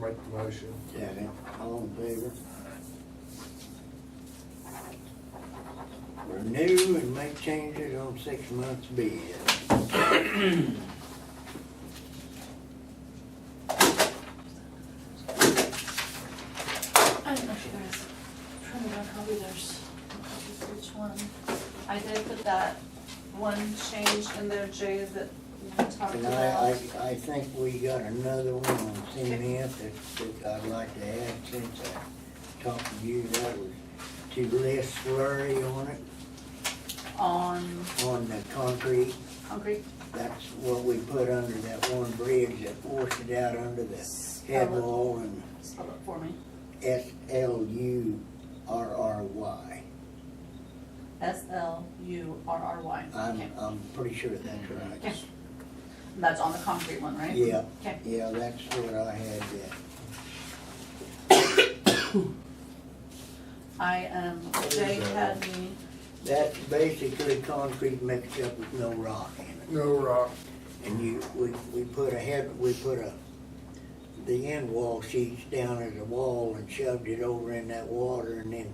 make the motion. Second, all in favor? Renew and make changes on six months bid. I don't know if you guys printed out copy, there's a copy for each one. I did put that one change in there, Jay, that we talked And I, about. I, I think we got another one on CMF that, that I'd like to add since I talked to you, that was to list slurry on it, On on the concrete. concrete, That's what we put under that one bridge that forced it out under the head wall and spell it for me. S L U R R Y. S L U R R Y. I'm, Okay. I'm pretty sure that's right. Okay. That's on the concrete one, right? Yeah, Okay. yeah, that's what I had, yeah. I, um, Jay had me, That's basically concrete mixed up with no rock in it. No rock. And you, we, we put a head, we put a, the end wall sheets down as a wall and shoved it over in that water and then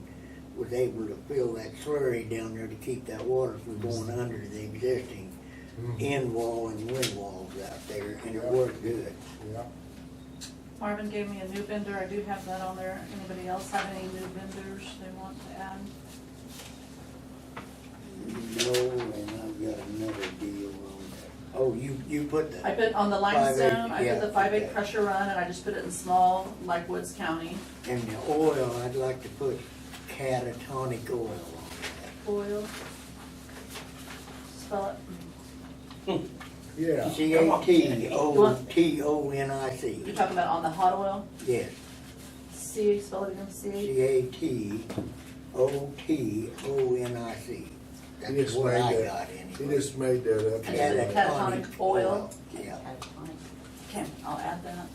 was able to fill that slurry down there to keep that water from going Mm-hmm. under the existing Hmm. end wall and wind walls out there, and it worked good. Yeah. Marvin gave me a new vendor, I do have that on there. Anybody else have any new vendors they want to add? No, and I've got another deal on that. Oh, you, you put I the, put on the limestone, I yeah, put the five okay. eight pressure run, and I just put it in small, like Woods County. and the oil, I'd like to put catatonic oil on Oil. Spell it. Yeah. that. C A T O T O N I You're C, talking about on the hot oil? yes, C, spell it again, C. C A T O T O N I C. You That's just what made I that- got He anyway. just made that up. And then the catatonic oil. Yeah, Okay, I'll add that.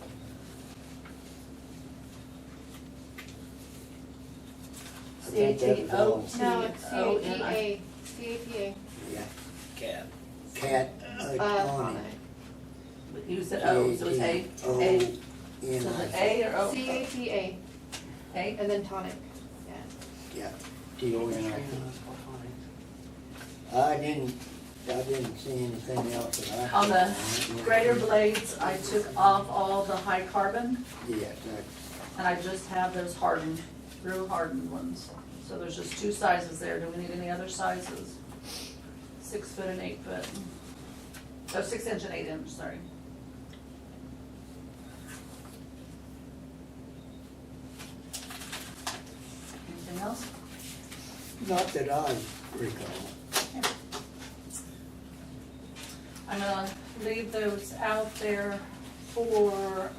I C A think T that's O E all. T No, it's E O N I. CATA, CATA, yeah, Cat. uh, catatonic. You said O, Uh, oh, so it's A, A. So N is it I A or O? E CATA, A? and then tonic, yeah. C, yeah, T O N I C. I didn't, I didn't see anything else that I. On the Greater blades, I took off all the high carbon, Yes, I- and I just have those hardened, real hardened ones. So there's just two sizes there, do we need any other sizes? Six foot and eight foot. Oh, six inch and eight inch, sorry. Anything else? not that I recall. I'm gonna leave those out there for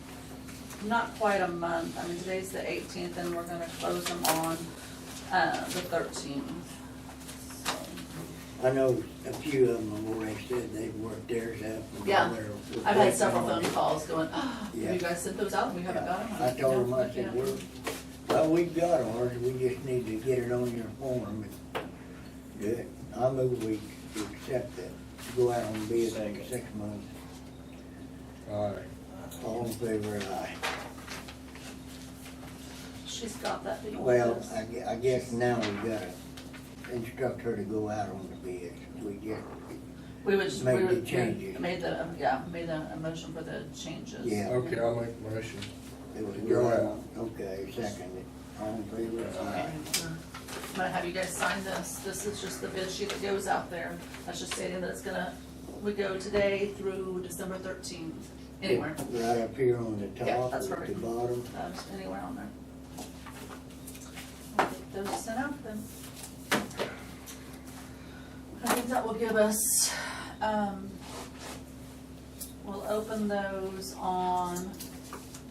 not quite a month. I mean, today's the eighteenth and we're gonna close them on, uh, the thirteenth. I know a few of them have already said they've worked theirs out. and Yeah. they're I've had working on several phone it. calls going, ah, Yeah. you guys sent those out and we haven't got them. I told them, I Yeah. said, we're, well, we've got ours, we just need to get it on your form and do it. I move we accept that, go out on bid in Second. six months, All right. all in favor, aye. She's got that. thing. Well, I gue- I guess now we gotta instruct her to go out on the bids. We get, We would, just- we make the would, we changes. made the, yeah, made the a motion for the changes. Yeah. Okay, I'll make the motion. it was. Go out. Okay, second it. All in favor? Okay, Aye. I'm gonna have you guys sign this, this is just the bid sheet that goes out there, that's just stating that it's gonna, we go today through December thirteenth, anywhere, Right up here on the Yeah, top, that's at the perfect. bottom. uh, just anywhere on there. I'll get Those sent out then. I think that will give us, um, we'll open those on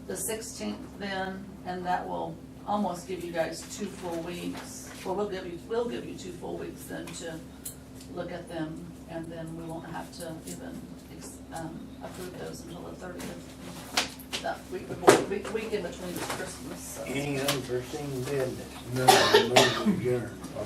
the sixteenth then, and that will almost give you guys two full weeks. Well, we'll give you, we'll give you two full weeks then to look at them, and then we won't have to even, ex- um, approve those until the thirtieth. That week before, week, week in between Christmas, so. Any unforeseen business? No. Move adjourned.